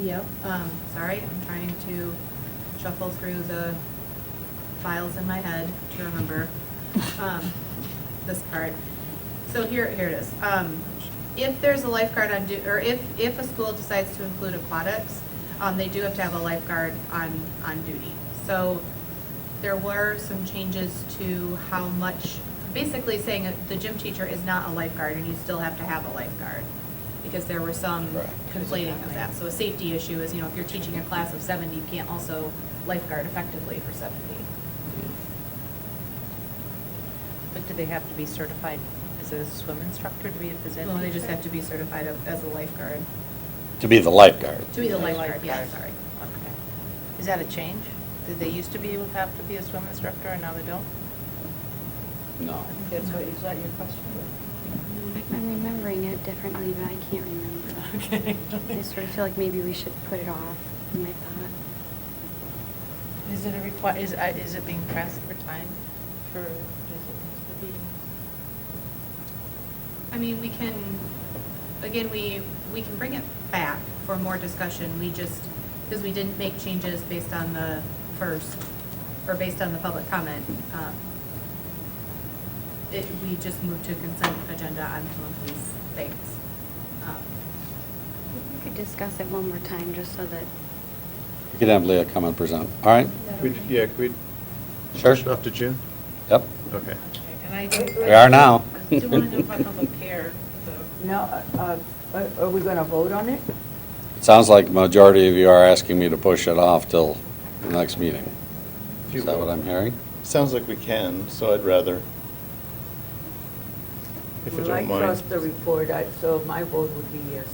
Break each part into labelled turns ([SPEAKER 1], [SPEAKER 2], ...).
[SPEAKER 1] Yep, um, sorry, I'm trying to shuffle through the files in my head to remember, um, this part. So here, here it is. Um, if there's a lifeguard on du, or if, if a school decides to include aquatics, um, they do have to have a lifeguard on, on duty. So there were some changes to how much, basically saying that the gym teacher is not a lifeguard and you still have to have a lifeguard. Because there were some
[SPEAKER 2] Correct.
[SPEAKER 1] conflating of that. So a safety issue is, you know, if you're teaching a class of seventy, you can't also lifeguard effectively for seventy.
[SPEAKER 3] But do they have to be certified as a swim instructor to be a phys ed
[SPEAKER 1] Well, they just
[SPEAKER 3] teacher?
[SPEAKER 1] have to be certified of- as a lifeguard,
[SPEAKER 2] To be the lifeguard.
[SPEAKER 1] to be the lifeguard, yeah, sorry.
[SPEAKER 3] Okay. Is that a change? Did they used to be, able to have to be a swim instructor and now they don't?
[SPEAKER 2] No.
[SPEAKER 1] That's what-
[SPEAKER 3] is that your question?
[SPEAKER 4] I'm remembering it differently, but I can't remember.
[SPEAKER 3] Okay.
[SPEAKER 4] I sort of feel like maybe we should put it off, in my thought.
[SPEAKER 3] Is it a require, is, uh, is it being pressed for time for, does it need to be?
[SPEAKER 1] I mean, we can, again, we, we can bring it back for more discussion, we just, because we didn't make changes based on the first, or based on the public comment. um, It, we just moved to consent agenda on some of these things. Um,
[SPEAKER 4] We could discuss it one more time, just so that
[SPEAKER 2] We could have Leah come and present. All right?
[SPEAKER 5] Could- Yeah, could we?
[SPEAKER 2] Sure.
[SPEAKER 5] push it Off to June?
[SPEAKER 2] Yep.
[SPEAKER 5] Okay.
[SPEAKER 3] And I
[SPEAKER 2] We are now.
[SPEAKER 3] do want to know about the pair, though.
[SPEAKER 6] Now, uh, are are we going to vote on it?
[SPEAKER 2] It sounds like majority of you are asking me to push it off till the next meeting.
[SPEAKER 5] If you
[SPEAKER 2] Is that
[SPEAKER 5] will.
[SPEAKER 2] what I'm hearing?
[SPEAKER 5] Sounds like we can, so I'd rather. If you don't
[SPEAKER 6] Well, I
[SPEAKER 5] mind.
[SPEAKER 6] trust the report, I- so my vote would be yes.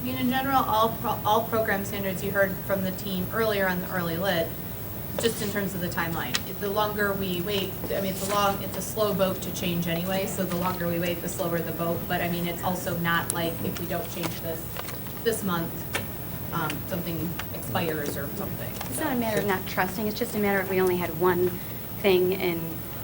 [SPEAKER 1] I mean, in general, all, pro- all program standards you heard from the team earlier on the early lit, just in terms of the timeline. It- The longer we wait, I mean, it's a long, it's a slow boat to change anyway, so the longer we wait, the slower the boat. But I mean, it's also not like if we don't change this, this month, um, something expires or something.
[SPEAKER 4] it's not a matter of not trusting, it's just a matter of we only had one thing, and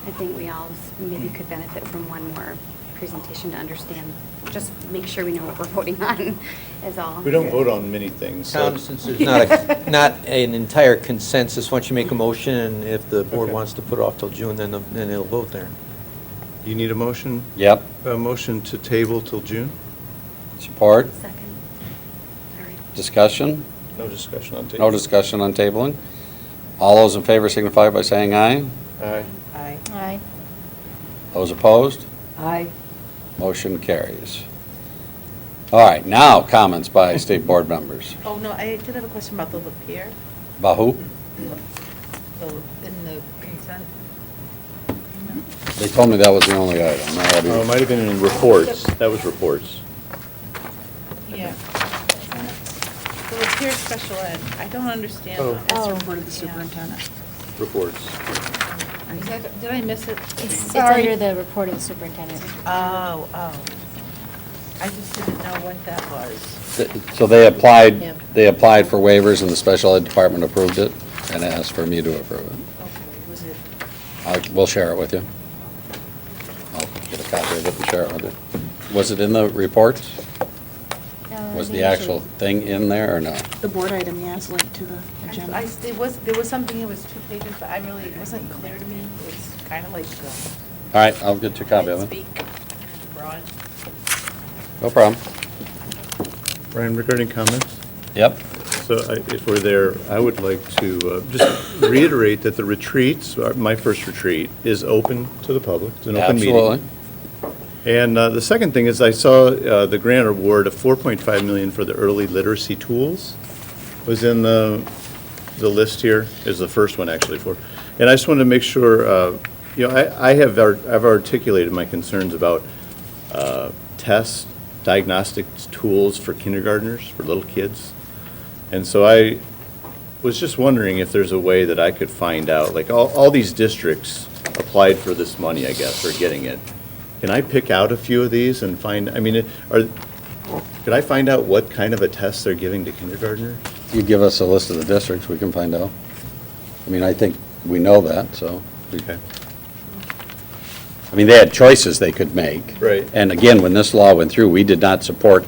[SPEAKER 4] I think we all s- maybe could benefit from one more presentation to understand, just make sure we know what we're voting on, is
[SPEAKER 6] Oh,
[SPEAKER 4] all.
[SPEAKER 5] We don't vote on many things, so.
[SPEAKER 7] Tom, since there's not, a- not an entire consensus, once you make a motion, and if the board
[SPEAKER 5] Okay.
[SPEAKER 7] wants to put it off till June, then, the- then they'll vote there.
[SPEAKER 5] You need a motion,
[SPEAKER 2] Yep.
[SPEAKER 5] a motion to table till June?
[SPEAKER 2] Support?
[SPEAKER 4] Second. Sorry.
[SPEAKER 2] Discussion?
[SPEAKER 5] No discussion on table.
[SPEAKER 2] No discussion on tabling? All those in favor signify by saying aye.
[SPEAKER 5] Aye.
[SPEAKER 3] Aye.
[SPEAKER 1] Aye.
[SPEAKER 2] Those opposed?
[SPEAKER 6] Aye.
[SPEAKER 2] Motion carries. All right, now comments by state board members.
[SPEAKER 3] Oh, no, I did have a question about the Lapierre,
[SPEAKER 2] Bahu,
[SPEAKER 3] the, in the consent.
[SPEAKER 2] they told me that was the only item. I had-
[SPEAKER 5] Oh, it might have been in reports. That was reports.
[SPEAKER 3] Yeah. The Lapierre special ed, I don't understand.
[SPEAKER 5] Oh.
[SPEAKER 3] That's reported the superintendent.
[SPEAKER 5] Reports.
[SPEAKER 3] Did I miss it?
[SPEAKER 8] It's, it's
[SPEAKER 3] Sorry.
[SPEAKER 8] under the report of the superintendent.
[SPEAKER 3] Oh, oh. I just didn't know what that was.
[SPEAKER 2] So they
[SPEAKER 8] Yeah.
[SPEAKER 2] applied, they applied for waivers and the special ed department approved it and asked for me to approve it.
[SPEAKER 3] Okay, was it?
[SPEAKER 2] I, we'll share it with you. I'll get a copy of it and share it with you. Was it in the reports?
[SPEAKER 8] No,
[SPEAKER 2] Was
[SPEAKER 8] they
[SPEAKER 2] the actual
[SPEAKER 8] usually-
[SPEAKER 2] thing in there or no?
[SPEAKER 9] The board item, yeah, is linked to the agenda.
[SPEAKER 3] I, it was, there was something, it was two pages, but I really, it wasn't clear to me. It was kind of like, um,
[SPEAKER 2] All right, I'll get you a copy of it.
[SPEAKER 3] speak broad.
[SPEAKER 2] No problem.
[SPEAKER 5] Ryan, regarding comments?
[SPEAKER 2] Yep.
[SPEAKER 5] So I- if we're there, I would like to uh, just reiterate that the retreats, uh, my first retreat, is open to the public. It's an open meeting.
[SPEAKER 2] Absolutely.
[SPEAKER 5] And uh, the second thing is I saw uh, the grant award of 4.5 million for the early literacy tools was in the, the list here, is the first one actually for. And I just wanted to make sure, uh, you know, I, I have, ar- I've articulated my concerns about uh, tests, diagnostic tools for kindergartners, for little kids. And so I was just wondering if there's a way that I could find out, like, all, all these districts applied for this money, I guess, or getting it. Can I pick out a few of these and find, I mean, it- are, could I find out what kind of a test they're giving to kindergartners?
[SPEAKER 2] You give us a list of the districts, we can find out. I mean, I think we know that, so. we-
[SPEAKER 5] Okay.
[SPEAKER 2] I mean, they had choices they could make.
[SPEAKER 5] Right.
[SPEAKER 2] And again, when this law went through, we did not support